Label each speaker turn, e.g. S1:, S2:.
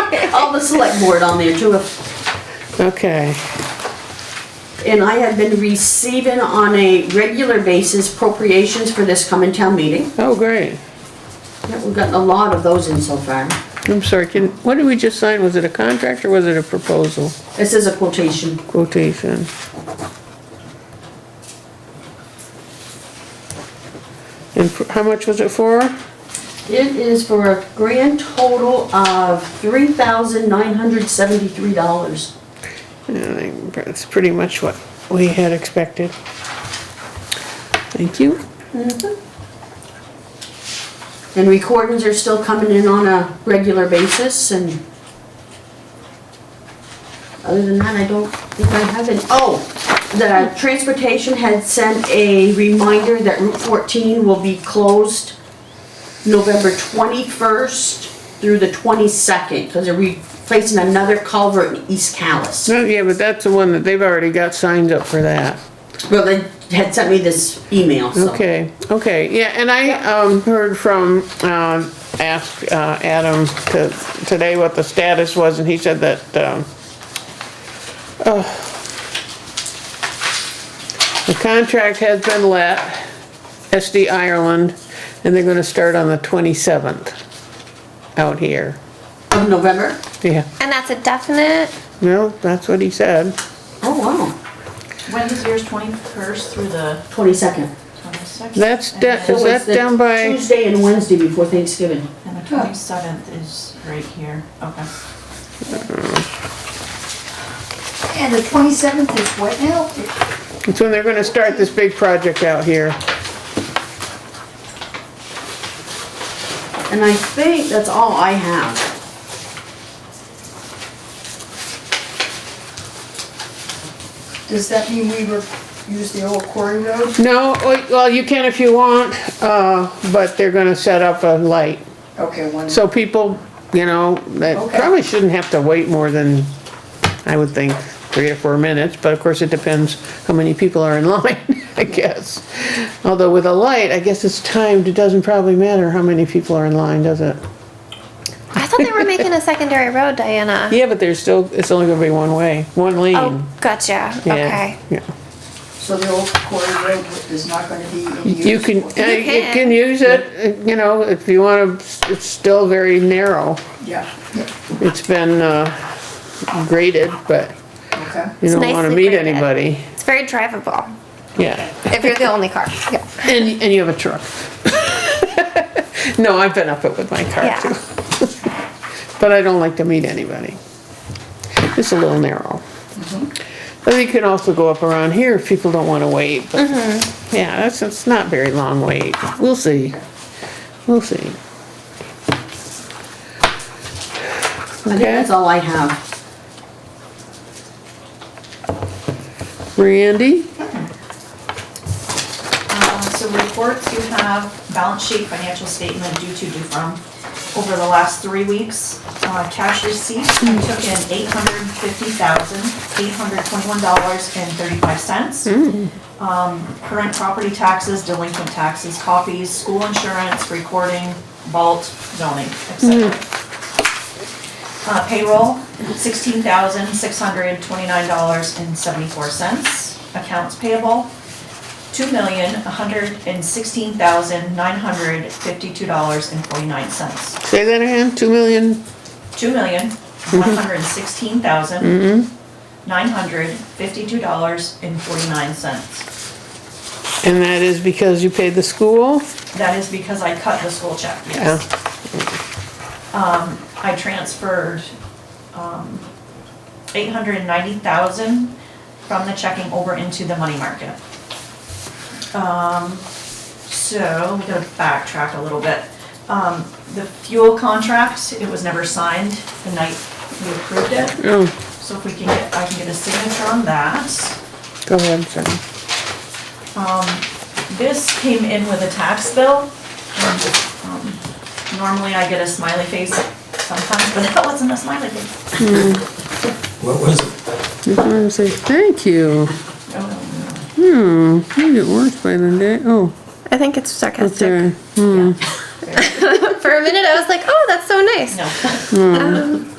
S1: the select board on there too, if
S2: Okay,
S1: And I have been receiving on a regular basis appropriations for this coming town meeting.
S2: oh, great.
S1: Yeah, We've gotten a lot of those in so far.
S2: I'm sorry, can, what did we just sign? Was it a contract or was it a proposal
S1: This is a quotation.
S2: quotation? And for- how much was it for?
S1: It is for a grand total of three thousand nine hundred seventy-three dollars.
S2: Yeah, I think That's pretty much what we had expected. Thank you.
S1: And recordings are still coming in on a regular basis and other than that, I don't think I have any. Oh, the transportation had sent a reminder that Route fourteen will be closed November twenty-first through the twenty-second, because they're replacing another culvert in East Callis.
S2: No, yeah, but that's the one that they've already got signed up for that.
S1: Well, they had sent me this email, so.
S2: Okay, okay, yeah, and I, um, heard from, um, asked, uh, Adam to, today what the status was, and he said that, um, uh, the contract has been let, SD Ireland, and they're gonna start on the twenty-seventh out here,
S1: Of November?
S2: yeah,
S3: And that's a definite.
S2: no, that's what he said.
S1: Oh, wow,
S4: When is yours, twenty-first through the
S1: twenty-second.
S4: twenty-sixth?
S2: That's de- Is that down by-
S1: Tuesday and Wednesday before Thanksgiving.
S4: And the twenty-seventh is right here, okay.
S5: And the twenty-seventh is what now?
S2: It's when they're gonna start this big project out here,
S1: And I think that's all I have.
S5: Does that mean we were, use the old quarry road?
S2: no, oh, well, you can if you want, uh, but they're gonna set up a light.
S5: Okay, one.
S2: So people, you know, that
S5: Okay.
S2: probably shouldn't have to wait more than, I would think, three or four minutes, but of course it depends how many people are in line, I guess. Although with a light, I guess it's timed, it doesn't probably matter how many people are in line, does it?
S3: I thought they were making a secondary road, Diana.
S2: Yeah, but there's still, it's only gonna be one way, one lane.
S3: Oh, gotcha.
S2: Yeah,
S3: Okay.
S2: yeah.
S5: So the old quarry road is not gonna be in use?
S2: You can, uh,
S5: for-
S2: you can
S3: can.
S2: use it, uh, you know, if you wanna, it's still very narrow.
S5: Yeah,
S2: It's been, uh, graded, but
S5: okay.
S2: you
S3: It's
S2: don't wanna
S3: nicely
S2: meet
S3: graded.
S2: anybody,
S3: It's very drivable
S2: yeah.
S3: if you're the only car. Yeah.
S2: And, and you have a truck. No, I've been up it with my car
S3: Yeah.
S2: too. But I don't like to meet anybody. It's a little narrow.
S3: Mm-hmm.
S2: But you can also go up around here if people don't wanna wait, but,
S3: Mm-hmm.
S2: yeah, that's, it's not very long wait. We'll see. We'll see.
S1: I think
S2: Okay,
S1: that's all I have.
S2: Randy?
S4: Uh, So reports, you have balance sheet, financial statement, due to, due from. Over the last three weeks, uh, cash receipts, I took in eight hundred fifty thousand, eight hundred twenty-one dollars and thirty-five cents. Um, Current property taxes, delinquent taxes, copies, school insurance, recording, vault, zoning, etc. Uh, Payroll, sixteen thousand, six hundred twenty-nine dollars and seventy-four cents. Accounts payable, two million, one hundred and sixteen thousand, nine hundred fifty-two dollars and forty-nine cents.
S2: Say that again, two million?
S4: Two million, one hundred sixteen thousand, nine hundred fifty-two dollars and forty-nine cents.
S2: And that is because you paid the school?
S4: That is because I cut the school check,
S2: Yeah.
S4: yes. Um, I transferred, um, eight hundred and ninety thousand from the checking over into the money market. Um, so, we gotta backtrack a little bit. Um, the fuel contract, it was never signed the night we approved it.
S2: Oh,
S4: So if we can get, I can get a signature on that.
S2: go ahead, sorry.
S4: Um, this came in with a tax bill. and, um, Normally I get a smiley face sometimes, but that wasn't a smiley face.
S6: What was it?
S2: I say, thank you.
S4: Oh,
S2: Hmm, you get worse by the day. Oh,
S3: I think it's
S2: that's
S3: sarcastic.
S2: there.
S4: no.
S3: For a minute, I was like, oh, that's so nice.
S4: No.